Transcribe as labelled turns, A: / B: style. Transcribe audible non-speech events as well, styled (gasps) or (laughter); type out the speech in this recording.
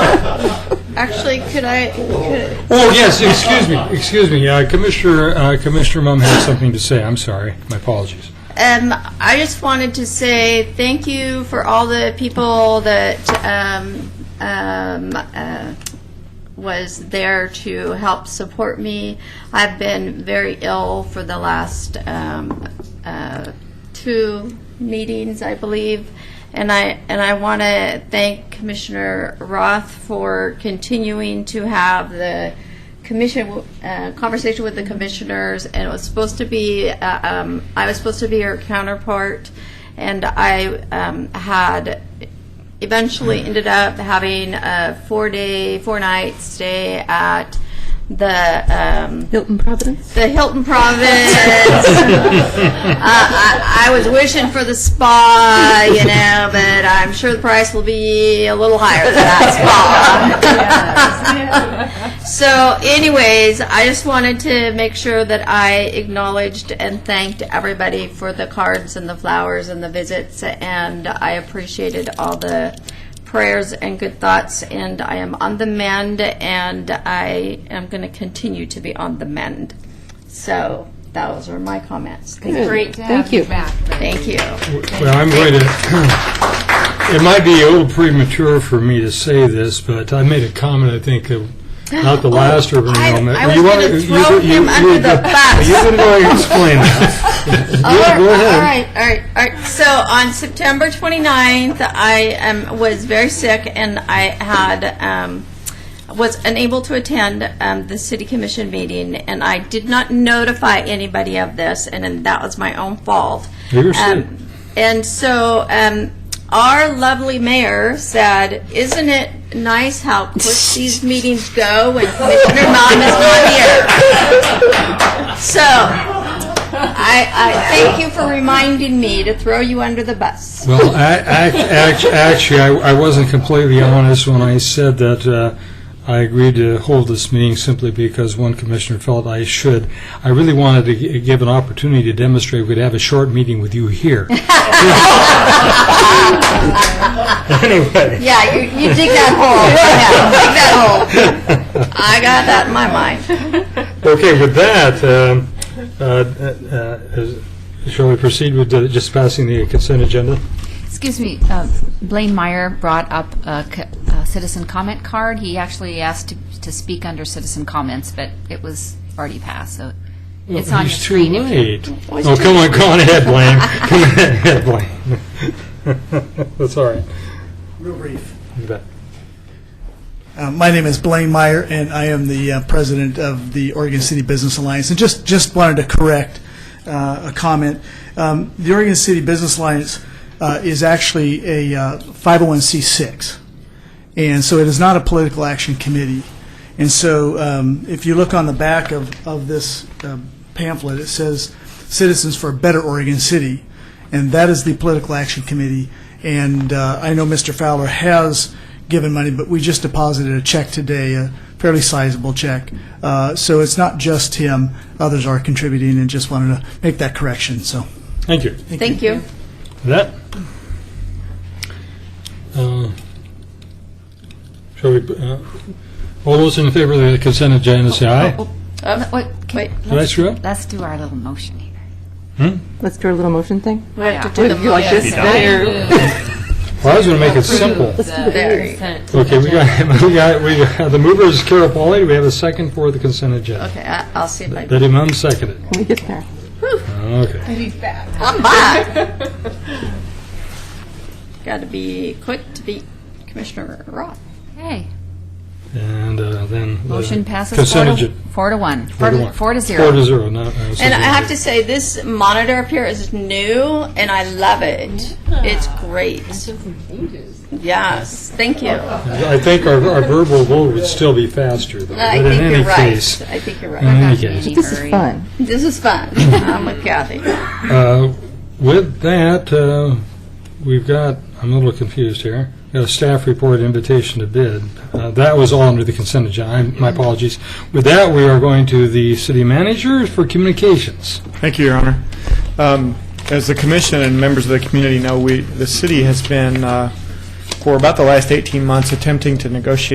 A: Actually, could I, could,
B: Oh, yes, excuse me, excuse me. Uh, Commissioner, uh, Commissioner Mum has something to say. I'm sorry, my apologies.
A: Um, I just wanted to say thank you for all the people that um, um, uh, was there to help support me. I've been very ill for the last um, uh, two meetings, I believe, and I and I want to thank Commissioner Roth for continuing to have the commission, uh, conversation with the commissioners, and it was supposed to be, uh, um, I was supposed to be her counterpart, and I um, had, eventually ended up having a four-day, four-night stay at the, um,
C: Hilton Providence?
A: the Hilton Province. Uh, I, I was wishing for the spa, you know, but I'm sure the price will be a little higher than that spa. so, anyways, I just wanted to make sure that I acknowledged and thanked everybody for the cards and the flowers and the visits, and I appreciated all the prayers and good thoughts, and I am on the mend, and I am going to continue to be on the mend. So those are my comments. Thank you.
D: Great to
C: Thank
D: have you
C: you.
D: back.
A: Thank you.
B: Well, I'm going to, (clears throat) it might be a little premature for me to say this, but I made a comment, I think, uh,
A: (gasps)
B: not the last urban
A: Oh, I-
B: enrollment.
A: I was
B: You wanna-
A: gonna
B: you-
A: throw
B: you-
A: him
B: you-
A: under the bus.
B: You can go ahead and explain
A: (laughs)
B: that. Yeah, go
A: All
B: ahead.
A: right, all right, all right. So on September 29th, I um, was very sick, and I had um, was unable to attend um, the city commission meeting, and I did not notify anybody of this, and, then that was my own fault.
B: You were sick.
A: Um, and so um, our lovely mayor said, "Isn't it nice how quick these meetings go when Commissioner Mom is not here?" So I, I thank you for reminding me to throw you under the bus.
B: Well, I, I, act- actually, I, I wasn't completely honest when I said that uh, I agreed to hold this meeting simply because one commissioner felt I should. I really wanted to gi- give an opportunity to demonstrate we'd have a short meeting with you here. Anyway,
A: Yeah, you, you dig that hole.
B: (laughs)
A: Yeah, dig that hole. I got that in my mind.
B: okay, with that, um, uh, uh, uh, shall we proceed with the- just passing the consent agenda?
D: Excuse me, uh, Blaine Meyer brought up a c- a citizen comment card. He actually asked to- to speak under citizen comments, but it was already passed, so it's on your
B: It's too
D: screen. if you-
B: late. Oh, come on, go on ahead, Blaine. (laughs) Come on ahead, Blaine. (laughs) That's all right.
E: Real brief.
B: You bet.
E: Uh, my name is Blaine Meyer, and I am the uh, president of the Oregon City Business Alliance. And just just wanted to correct uh, a comment. Um, the Oregon City Business Alliance uh, is actually a uh, 501c6, and so it is not a political action committee. And so, um, if you look on the back of of this uh, pamphlet, it says "Citizens for a Better Oregon City." and that is the Political Action Committee. And uh, I know Mr. Fowler has given money, but we just deposited a check today, a fairly sizable check. Uh, So it's not just him, others are contributing, and just wanted to make that correction, so.
B: Thank you.
A: Thank you.
B: That. Uh, Shall we, uh, all those in favor of the consent agenda, say aye.
D: Oh, no, wait, can-
A: Wait.
B: Did I screw up?
D: Let's do our little motion here.
C: Let's do our little motion thing.
A: We have to
C: Do
A: do the
C: you like
A: motion.
C: this? There.
B: Well, I was going to make it simple.
A: There.
B: Okay, we got, (laughs) we got, we got, the mover is Carapoli, do we have a second for the consent agenda.
A: Okay, I- I'll see if I.
B: Betty Mum seconded.
C: Can we get there?
B: Okay.
A: I'm back.
B: (laughs)
A: Got to be quick to beat Commissioner Roth.
D: Hey,
B: And uh, then. the
D: motion passes four
B: Consent
D: to,
B: agenda.
D: four to one.
B: Four to one.
D: Four to
B: Four to
D: zero.
B: zero, not. uh,
A: And I
B: something.
A: have to say, this monitor up here is new, and I love it. It's great. Yes, thank you.
B: I think our our verbal vote would still be faster, though.
A: I
B: but in
A: think
B: any
A: you're
B: case-
A: right. I think you're
B: In
A: right.
B: any case.
C: This is fun.
A: This is fun. I'm with Kathy.
B: Uh, With that, uh, we've got, I'm a little confused here, got a staff report invitation to bid. Uh, That was all under the consent agenda, I- my apologies. With that, we are going to the city manager for communications.
F: Thank you, Your Honor. Um, As the commission and members of the community know, we, the city has been, uh, for about the last 18 months, attempting to negotiate